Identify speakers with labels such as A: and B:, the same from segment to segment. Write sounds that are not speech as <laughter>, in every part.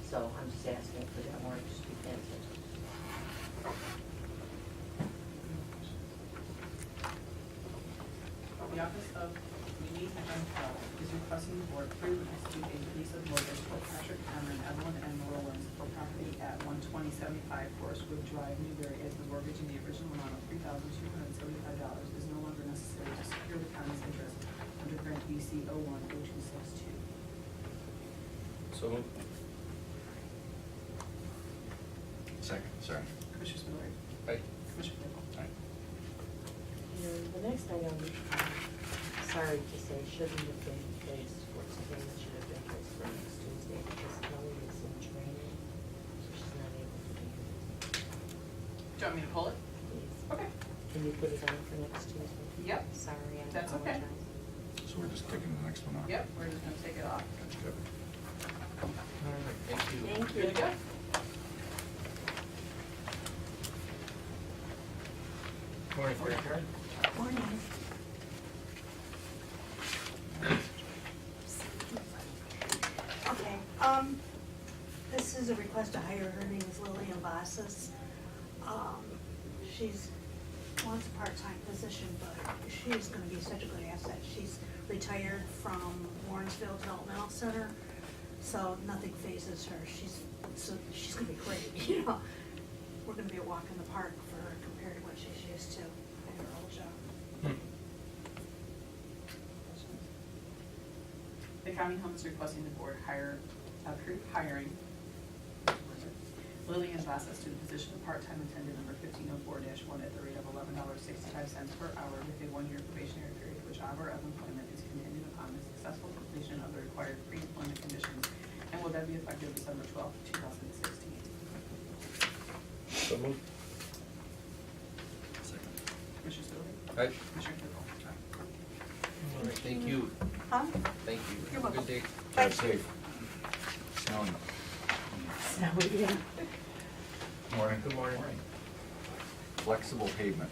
A: He's asking for that warrant to be canceled.
B: The Office of Mimi Hempel is requesting the board approve and execute a release of mortgage for Patrick Cameron, Evelyn and Rollins for property at one twenty seventy-five Forest Wood Drive, Newbury, as the mortgage in the original amount of three thousand two hundred and seventy-five dollars is no longer necessary to secure the county's interest under grant BC oh one oh two six two.
C: So moved.
D: Second, sorry.
B: Commissioner Spillier.
C: Aye.
B: Commissioner Claypool.
D: Aye.
A: And the next item, I'm sorry to say, shouldn't have been placed for today, it should have been placed for next Tuesday, because Kelly is in training, so she's not able to be here.
B: Do you want me to pull it?
A: Please,
B: Okay.
A: can you put it on for next Tuesday?
B: Yep.
A: Sorry, I
B: That's okay.
A: apologize. <laughs>
D: So we're just taking the next one off?
B: Yep, we're just gonna take it off.
D: That's good.
C: Thank you.
A: Thank you.
B: Good to go?
C: Morning, Fair Karen.
A: Morning.
E: Okay, um, this is a request to hire, her name is Lillian Vasas. Um, she's, wants a part-time position, but she's gonna be such a good asset. She's retired from Warrensville Developmental Center, so nothing phases her. She's, so, she's gonna be great, <laughs> you know? We're gonna be a walk in the park for her compared to what she's used to in her old job.
B: The county home is requesting the board hire, approve hiring Lillian Vasas to the position of part-time attendant number fifteen oh four one at the rate of eleven dollars sixty-five cents per hour with a one-year probationary period, which hour of employment is contingent upon the successful completion of the required pre-employment conditions and will then be effective December twelfth, two thousand sixteen.
C: So moved.
D: Second.
B: Commissioner Spillier.
C: Aye.
B: Commissioner Claypool.
C: All right, thank you.
E: Huh?
C: Thank you.
E: You're welcome.
C: Good day.
D: Drive safe. Snowing.
A: So, yeah.
D: Morning.
C: Good morning.
D: Flexible pavement.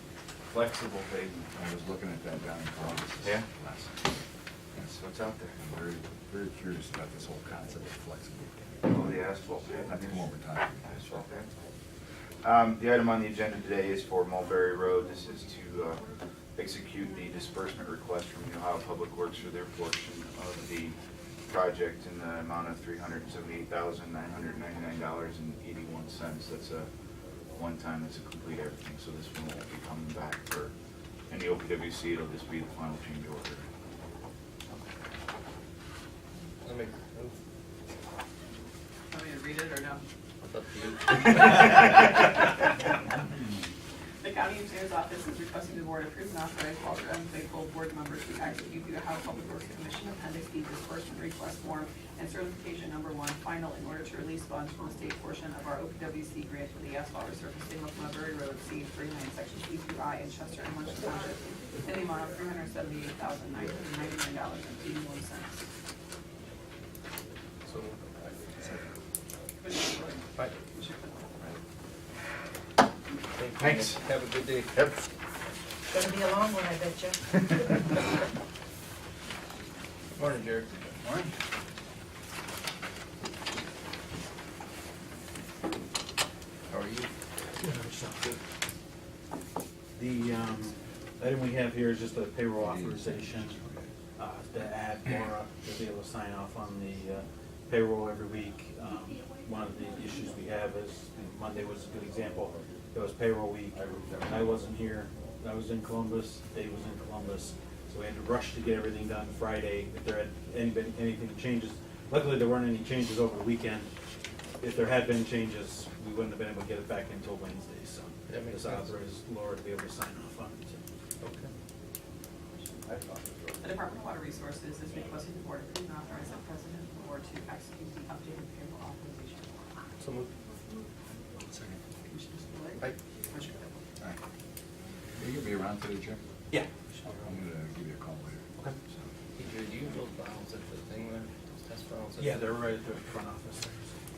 F: Flexible pavement.
D: I was looking at that down in Columbus.
F: Yeah?
D: last
F: That's what's out
D: I'm
F: there.
D: very, very curious about this whole concept of flexible.
F: Oh, the asphalt pavement.
D: That's one we're talking
F: Asphalt pavement. Um, the item on the agenda today is for Mulberry Road. This is to, uh, execute the disbursement request from the Ohio Public Works for their portion of the project in the amount of three hundred and seventy-eight thousand, nine hundred and ninety-nine dollars and eighty-one cents. That's a one-time, that's a complete everything, so this one won't be coming back for any OPWC. It'll just be the final change order.
C: Let me, oh,
B: Want me to read it or no?
C: it's up to you.
B: The county engineer's office is requesting the board approve and authorize Walter M. Claypool, board members to execute the Ohio Public Works Commission Appendix B disbursement request form and certification number one final in order to release funds from the state portion of our OPWC grant for the asphalt resurfacing of Mulberry Road, C three-nine, section E through I in Chester and Munson Township, in the amount of three hundred seventy-eight thousand nine hundred ninety-nine dollars and eighty-one cents.
C: So moved. Aye. Thank you.
F: Thanks.
C: Have a good day.
F: Yep.
A: Gonna be a long one, I bet you. <laughs>
C: Morning, Jared.
D: Morning.
C: How are you?
G: The um, item we have here is just a payroll authorization uh, to add Laura uh, to be able to sign off on the uh, payroll every week. Um, One of the issues we have is, and Monday was a good example, it was payroll week. I wasn't here, I was in Columbus, Dave was in Columbus, so we had to rush to get everything done Friday. If there had anybody, anything changes, luckily there weren't any changes over the weekend. If there had been changes, we wouldn't have been able to get it back until Wednesday, so.
C: That makes
G: This
C: sense.
G: authorizes Laura to be able to sign off on it.
C: Okay.
B: The Department of Water Resources is requesting the board approve and authorize the president of the board to execute the updated payroll authorization form.
C: So moved.
D: Second.
B: Commissioner Spillier.
C: Aye.
B: Commissioner Claypool.
D: All right. Are you gonna be around today, Jim?
G: Yeah.
D: I'm gonna give you a call later.
G: Okay.
D: So,
C: Hey, Jared, do you have those bounds at the thing there? Those Test bounds? at
G: Yeah,
C: the-
G: they're right at the front office there.